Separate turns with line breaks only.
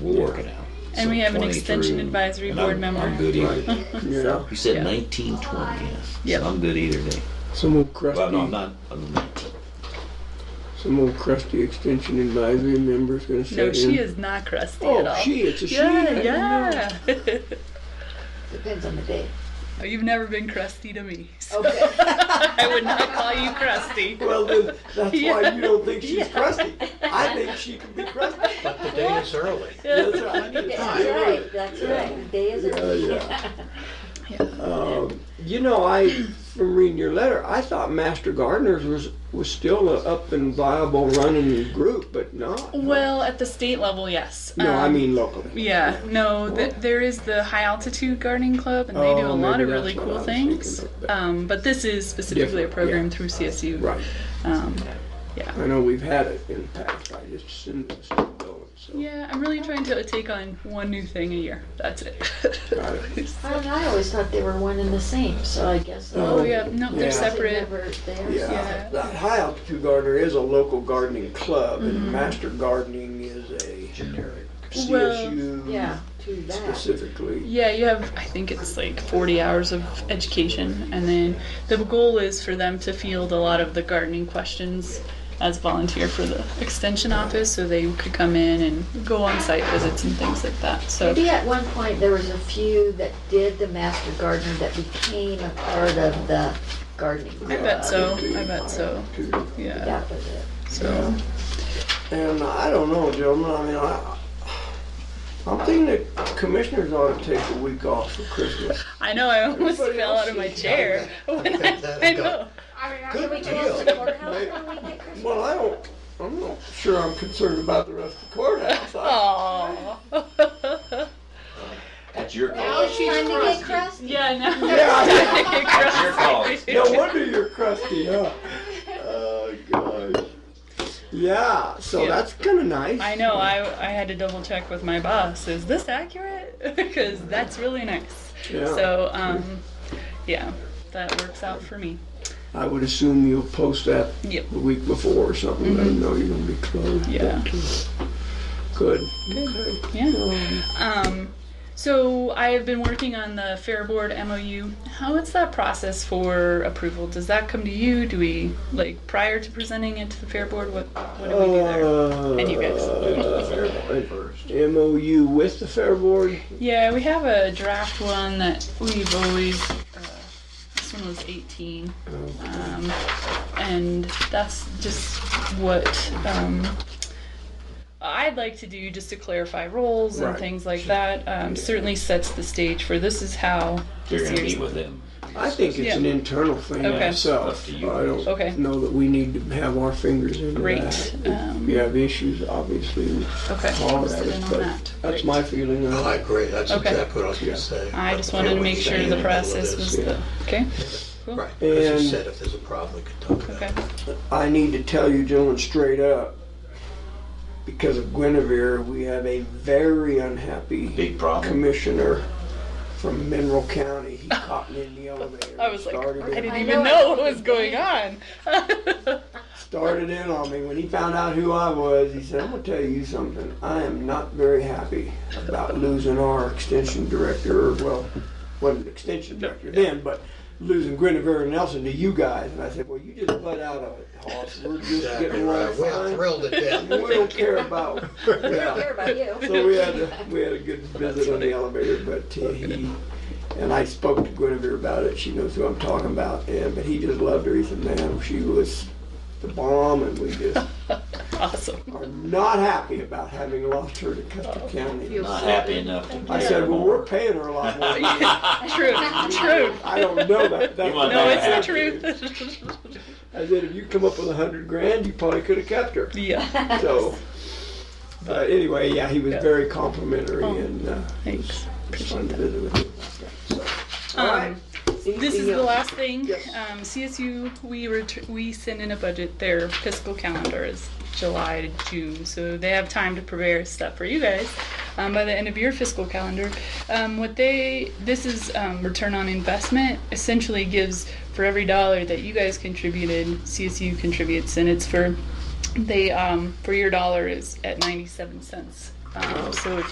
War.
Working out.
And we have an extension advisory board member.
I'm good either.
Right.
Yeah.
You said
Yeah.
1920, yeah.
Yep.
So I'm good either day.
So move
Well, no, I'm
Krusty,
not. I'm 19.
so move Krusty Extension Advisory member's gonna sit in.
No, she is not crusty at all.
Oh, she, it's a she. I
Yeah,
didn't know.
yeah.
Depends on the day.
Oh, You've never been crusty to me. so
Okay.
I would not call you crusty.
Well, then, that's why
Yeah.
you don't think she's crusty. I think she can be crusty.
But the day is early.
That's right.
That's right, that's right. The Day is
Oh,
Yeah,
early.
yeah.
Yeah.
Um, You know, I, from reading your letter, I thought Master Gardeners was, was still a up and viable running group, but no.
Well, at the state level, yes.
No, I
Um,
mean locally.
Yeah, no, th- there is the High Altitude Gardening Club, and they do
Oh,
a lot
maybe
of really
that's what I
cool
was
things.
thinking of, but-
Um, but this is specifically a
Different,
program
yeah.
through CSU.
Right.
Um,
I know we've had it in the past. I just assumed it was still going, so.
yeah, I'm really trying to take on one new thing a year. That's it.
Got it.
I don't know, I always thought they were one and the same, so I guess.
oh yeah, no,
Yeah.
they're separate.
Never there.
Yeah,
Yeah.
that high altitude gardener is a local gardening club and master gardening is a
Generic.
Yeah,
CSU
to that.
specifically.
Yeah, you have, I think it's like 40 hours of education, and then the goal is for them to field a lot of the gardening questions as volunteer for the extension office so they could come in and go on site visits and things like that. So
Maybe at one point, there was a few that did the master gardener that became a part of the gardening club.
I bet so. I bet so. Yeah.
That was it.
So
And I don't know, gentlemen, I mean, I, I'm thinking that commissioners ought to take a week off for Christmas.
I know I almost
Everybody
fell
else
out of my
sees
chair when I, I know.
I mean,
Good
can we
deal.
close the courthouse when we get Christmas?
Well, I don't, I'm not sure I'm concerned about the rest of the courthouse. I-
Aww.
That's your
Now
Uh,
call.
she's
Time to get
crusty.
crusty.
yeah, no.
Yeah.
Your call.
No wonder you're crusty, huh? Oh, gosh. Yeah, so
Yeah.
that's kinda nice.
I know. I, I had to double check with my boss. Is this accurate? because that's really nice.
Yeah.
So um, yeah, that works out for me.
I would assume you'll post that
Yep.
the week before or something. Let them know you're gonna be closed.
Mm-hmm. Yeah.
Good.
Yeah. Um, so I have been working on the Fair Board MOU. How is that process for approval? Does that come to you? Do we like prior to presenting it to the Fair Board? What what do we do
Uh,
there? And you guys.
MOU with the Fair Board.
Yeah, we have a draft one that we've always. Uh, this one was 18, um, and that's just what um, I'd like to do, just to clarify roles and
Right.
things like that. Um, Certainly sets the stage for this is how.
You're going to meet
this year's-
with them.
I think it's
Yeah.
an internal thing
Okay.
itself.
Up to you.
I don't
Okay.
know that we need to have our fingers in
Great.
that.
Um,
We have issues, obviously. with
Okay,
All
we'll
that,
sit in on
but
that.
that's
Great.
my feeling. on
I
it.
agree, that's
Okay.
exactly what I was gonna say.
I just wanted to make sure the process was
yeah.
the, okay,
Right, as
And-
you said, if there's a problem, we could talk about
okay.
it.
I need to tell you, gentlemen, straight up, because of Guinevere, we have a very unhappy
Big problem.
commissioner from Mineral County. He caught me in the elevator.
I was like,
started
I
in,
didn't
I
even
know.
know what was going on.
started in on me when he found out who I was. He said, "I'm gonna tell you something. I am not very happy about losing our extension director. Or, well, wasn't an extension director then, but." Losing Guinevere and Nelson to you guys, and I said, "Well, you just butt out of it, Hoss. We're just
Exactly
getting along
right, we're
fine.
thrilled to
We
death.
don't care about."
We don't
Yeah.
care about you.
So we had a, we had a good visit on the elevator, but uh, he and I spoke to Guinevere about it. She knows who I'm talking about, and but he just loved her. He said, "Man, she was the bomb," and we just
Awesome.
are not happy about having lost her to Custer
Oh.
County.
Not happy enough to
I
pay
said,
her
"Well,
more.
we're paying her a lot more." than you."
True, true.
I don't know that. That's
You want
No,
Yeah.
it's the truth.
I said, "If you come up with a hundred grand, you probably could have kept her."
yeah.
So. But anyway, yeah, he was
Yeah.
very complimentary
Oh.
and uh, it was
Thanks.
fun to visit with him. So, all right.
Um, this is
Anything
the
else?
last thing.
Yes.
Um, CSU, we ret- we send in a budget. Their fiscal calendar is July to June, so they have time to prepare stuff for you guys um, by the end of your fiscal calendar. Um, what they this is um, return on investment. Essentially, gives for every dollar that you guys contributed, CSU contributes, and it's for they um, for your dollar is at ninety seven cents. Um, so if